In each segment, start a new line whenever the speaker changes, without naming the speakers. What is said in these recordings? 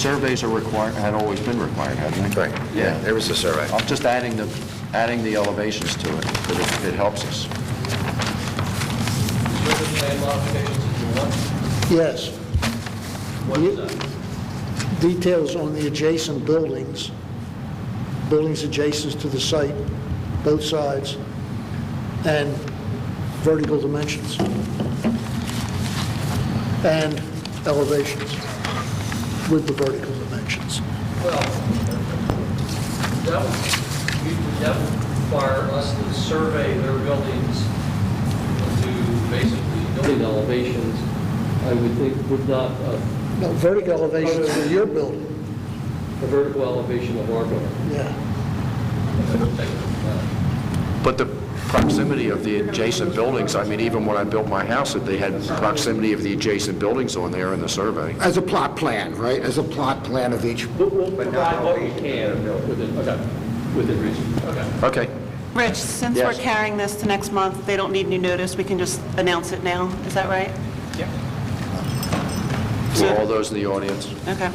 Surveys are required, had always been required, hadn't they?
Right, yeah, there was a survey.
I'm just adding the, adding the elevations to it, but it- it helps us.
Surface plan modifications if you want.
Yes,
What is that?
details on the adjacent buildings, buildings adjacent to the site, both sides, and vertical dimensions, and elevations with the vertical dimensions.
Well, that would, we- that would require us to survey their buildings to basically building elevations, I would think would not, uh,
No, vertical elevations of your building,
a vertical elevation of our building.
yeah.
That would take, uh,
But the proximity of the adjacent buildings, I mean, even when I built my house, if they had proximity of the adjacent buildings on there in the survey.
As a plot plan, right? As a plot plan of each,
We'll we'll provide what we can within, okay, within reason, okay.
Okay,
Rich, since we're
Yes.
carrying this to next month, they don't need new notice, we can just announce it now, is that right?
for all those in the audience.
Okay.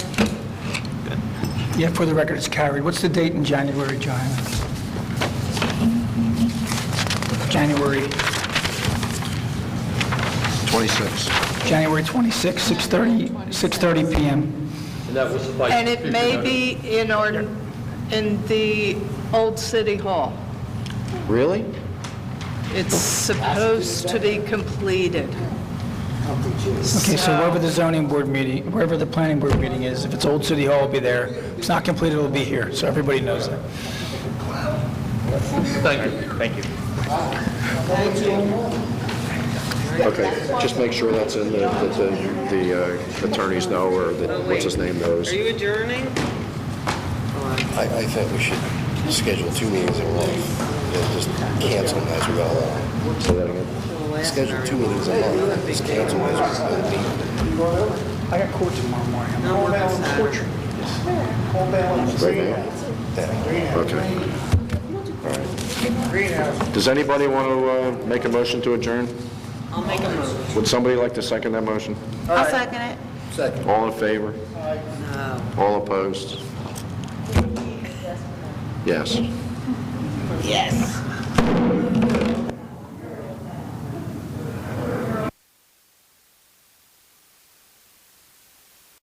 Yeah, for the record, it's carried. What's the date in January, John? January,
26.
January 26, 6:30, 6:30 PM.
And that was by...
And it may be in our, in the old city hall.
Really?
It's supposed to be completed.
Okay, so wherever the zoning board meeting, wherever the planning board meeting is, if it's Old City Hall, it'll be there. If it's not completed, it'll be here, so everybody knows that.
Okay, just make sure that's in, the that the the uh, attorneys know, or that, what's his name knows.
Are you adjourning?
I, I think we should schedule two meetings in one, just cancel them as we go along. Say that again? Schedule two meetings in one, just cancel them as we go along.
I got court tomorrow morning.
No, we're not Saturday.
Right now? Okay. Does anybody want to uh, make a motion to adjourn?
I'll make a motion.
Would somebody like to second that motion?
I'll second it.
All in favor? All opposed? Yes.